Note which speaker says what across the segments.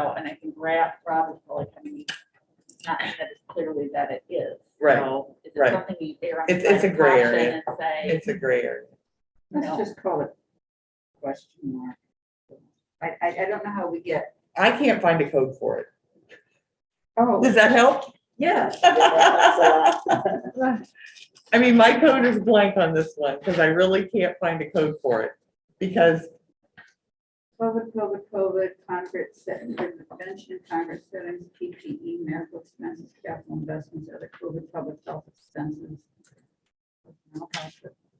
Speaker 1: out, and I think Rob, Rob is probably coming, not that it's clearly that it is.
Speaker 2: Right,
Speaker 1: So is it
Speaker 2: right.
Speaker 1: something you err on the
Speaker 2: It's-
Speaker 1: side
Speaker 2: it's a
Speaker 1: of
Speaker 2: gray
Speaker 1: caution
Speaker 2: area.
Speaker 1: And say,
Speaker 2: It's a gray area.
Speaker 1: No.
Speaker 3: Let's just call it question mark. I, I, I don't know how we get,
Speaker 2: I can't find a code for it.
Speaker 3: oh,
Speaker 2: Does that help?
Speaker 3: yeah.
Speaker 2: I mean, my code is blank on this one because I really can't find a code for it. Because,
Speaker 3: COVID, COVID, COVID, conference setting, convention, conference settings, PPE, E, medical expenses, capital investments, other COVID, public health expenses.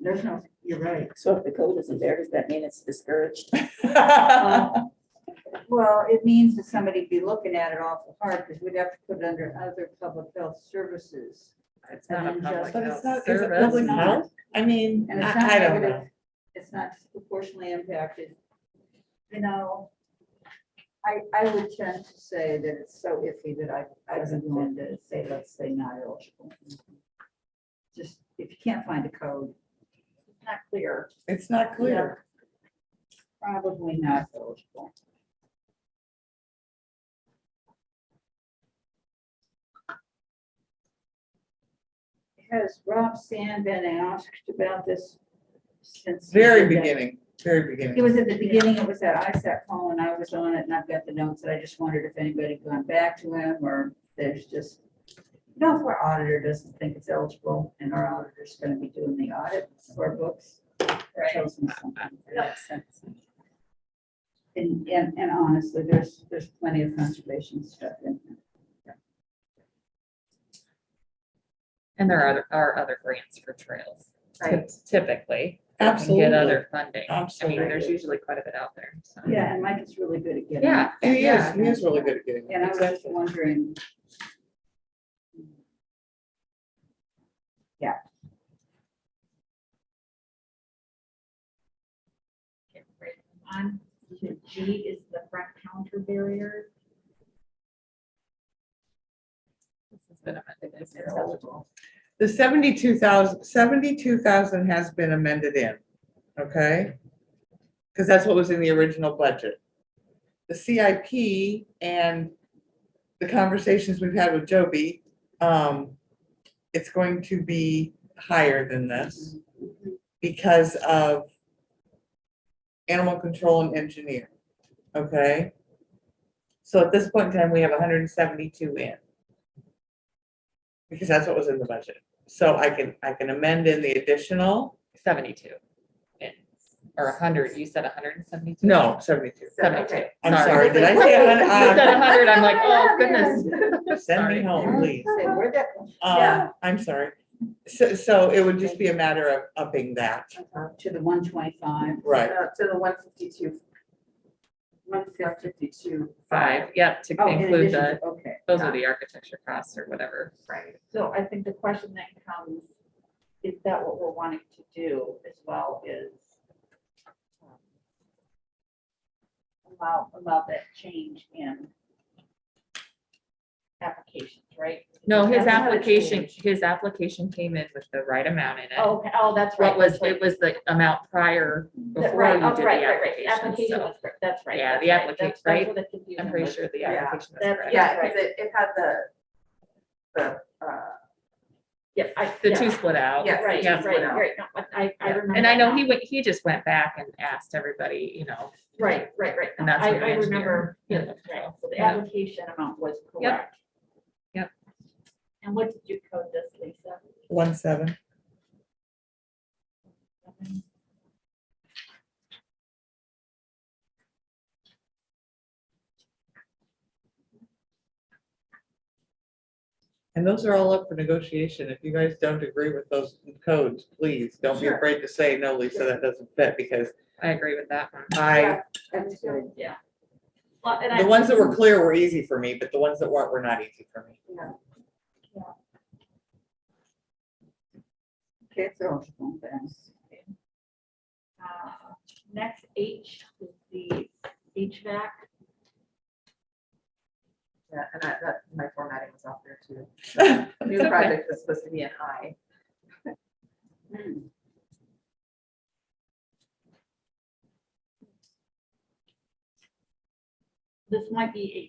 Speaker 3: There's no, you're right.
Speaker 4: So if the code isn't there, does that mean it's discouraged?
Speaker 2: well,
Speaker 3: Uh, Well, it means that somebody be looking at it awful hard because we'd have to put it under other public health services.
Speaker 5: It's
Speaker 3: And
Speaker 5: not a
Speaker 3: then
Speaker 5: public
Speaker 3: just- But it's
Speaker 5: health
Speaker 3: not-
Speaker 2: is it
Speaker 5: service.
Speaker 2: public health? I mean,
Speaker 3: And it's not
Speaker 2: I I don't
Speaker 3: negative.
Speaker 2: know.
Speaker 3: It's not disproportionately impacted. You know, I, I would tend to say that it's so iffy that I, I would want to say, let's say not eligible. Just, if you can't find a code,
Speaker 1: it's not clear.
Speaker 2: It's not clear.
Speaker 3: probably not eligible. Has Rob Sand been asked about this since? we
Speaker 2: Very
Speaker 3: did that?
Speaker 2: beginning, very
Speaker 3: It
Speaker 2: beginning.
Speaker 3: was at the beginning, it was that ISAC call and I was on it and I've got the notes and I just wondered if anybody had gone back to him or there's just. You know, if our auditor doesn't think it's eligible and our auditor's gonna be doing the audit for our books. that tells me something. And, and, and honestly, there's, there's plenty of conservation stuff in there.
Speaker 5: And there are, are other grants for trails
Speaker 3: Right.
Speaker 5: typically. that can
Speaker 2: Absolutely.
Speaker 5: Get other funding. I mean, there's
Speaker 2: Absolutely.
Speaker 5: usually quite a bit out there, so.
Speaker 3: Yeah, and Mike is really good at getting.
Speaker 5: Yeah.
Speaker 2: And he is,
Speaker 5: yeah.
Speaker 2: he is really good at getting.
Speaker 3: And I was just
Speaker 2: Exactly.
Speaker 3: wondering. Yeah.
Speaker 1: Okay, great. On to Um, G is the front counter barrier.
Speaker 5: This has been amended. It's
Speaker 3: eligible.
Speaker 2: The 72,000 72,000 has been amended in, okay? Because that's what was in the original budget. The CIP and the conversations we've had with Joby, um, it's going to be higher than this because of animal control and engineer, okay? So at this point in time, we have hundred and seventy-two in. Because that's what was in the budget. So I can, I can amend in the additional,
Speaker 5: Seventy-two. And- Or a hundred, you said hundred and seventy-two?
Speaker 2: no, seventy-two.
Speaker 5: Seventy-two.
Speaker 2: I'm sorry, did I say a
Speaker 5: You
Speaker 1: Uh,
Speaker 5: said
Speaker 2: hundred?
Speaker 5: hundred, I'm like, oh goodness.
Speaker 2: Uh, Send me
Speaker 5: Sorry.
Speaker 2: home, please.
Speaker 3: Say, where'd that come
Speaker 2: Um, I'm sorry. So, so it would just be a matter of upping that,
Speaker 3: from? To the one twenty-five.
Speaker 2: right?
Speaker 4: Uh, To the one fifty-two.
Speaker 3: One fifty-two.
Speaker 5: Five, yep, to
Speaker 3: Oh, in
Speaker 5: include
Speaker 3: addition
Speaker 5: the,
Speaker 3: to- Okay.
Speaker 5: those are the architecture costs or whatever.
Speaker 1: Right, so I think the question that comes, is that what we're wanting to do as well is um, allow, allow that change in applications, right?
Speaker 5: No, his
Speaker 1: That's not a
Speaker 5: application,
Speaker 1: change.
Speaker 5: his application came in with the right amount in it.
Speaker 1: Oh, okay. oh, that's right.
Speaker 5: What was,
Speaker 1: that's right.
Speaker 5: it was the amount prior
Speaker 1: That-
Speaker 5: before you
Speaker 1: Right,
Speaker 5: did
Speaker 1: oh,
Speaker 5: the
Speaker 1: right, right, right, the
Speaker 5: application,
Speaker 1: application
Speaker 5: so
Speaker 1: was, correct. that's right.
Speaker 5: Yeah,
Speaker 1: that's
Speaker 5: the
Speaker 1: right.
Speaker 5: applica-
Speaker 1: That's- That's where
Speaker 5: right?
Speaker 1: the confusion
Speaker 5: I'm
Speaker 1: was.
Speaker 5: pretty sure the
Speaker 3: Yeah,
Speaker 5: application was
Speaker 1: that's-
Speaker 5: correct.
Speaker 4: Yeah, because it, it had the, the, uh,
Speaker 1: Yeah, I,
Speaker 5: The
Speaker 1: yeah,
Speaker 5: two split out.
Speaker 4: Yeah,
Speaker 1: Right,
Speaker 5: yeah,
Speaker 1: right,
Speaker 4: split out.
Speaker 1: right, no, I, I
Speaker 5: Yeah.
Speaker 1: remember.
Speaker 5: And I know
Speaker 1: now.
Speaker 5: he went, he just went back and asked everybody, you know,
Speaker 1: Right, right, right.
Speaker 5: And that's
Speaker 1: I,
Speaker 5: what
Speaker 1: I
Speaker 5: an engineer-
Speaker 1: remember, yeah,
Speaker 5: yeah.
Speaker 1: right, so the
Speaker 5: Yeah.
Speaker 1: application amount was correct.
Speaker 5: Yep.
Speaker 1: And what did you code this, Lisa?
Speaker 2: One seven. And those are all up for negotiation. If you guys don't agree with those codes, please don't be
Speaker 1: Sure.
Speaker 2: afraid to say, no, Lisa, that doesn't fit, because
Speaker 5: I agree with that one.
Speaker 2: I,
Speaker 3: That's good.
Speaker 1: Yeah. Well, and
Speaker 2: the
Speaker 1: I,
Speaker 2: ones that were clear were easy for me, but the ones that weren't were not easy for me.
Speaker 3: Okay, so. thanks.
Speaker 1: uh, next H is the HVAC.
Speaker 4: yeah, and I, that, my formatting was off there too.
Speaker 5: okay.
Speaker 4: New project was supposed to be an I.
Speaker 3: Hmm.
Speaker 1: This might be